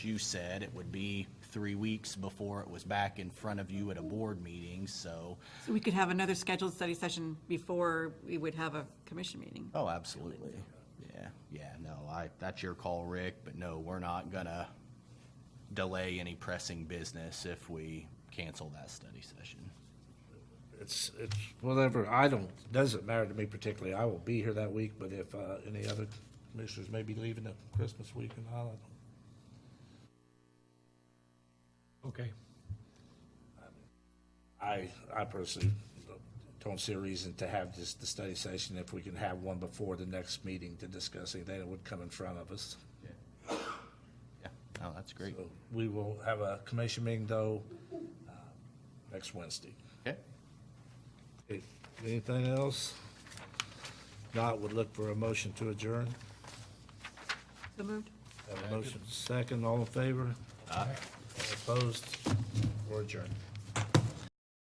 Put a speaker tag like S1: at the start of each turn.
S1: You said it would be three weeks before it was back in front of you at a board meeting, so,
S2: So we could have another scheduled study session before we would have a commission meeting.
S1: oh, absolutely. Yeah, yeah, no, I, that's your call, Rick, but no, we're not gonna delay any pressing business if we cancel that study session.
S3: It's, it's whatever, I don't, doesn't matter to me particularly, I will be here that week, but if, uh, any other commissioners may be leaving at Christmas week and all, I don't
S4: Okay.
S3: I, I personally don't see a reason to have this, the study session if we can have one before the next meeting to discuss anything that would come in front of us.
S1: Yeah, no, that's great.
S3: So We will have a commission meeting though, uh, next Wednesday.
S1: Okay,
S3: Okay, Anything else? Not would look for a motion to adjourn.
S2: So moved?
S3: Have a motion second, all in favor? Aye. Opposed? We're adjourned.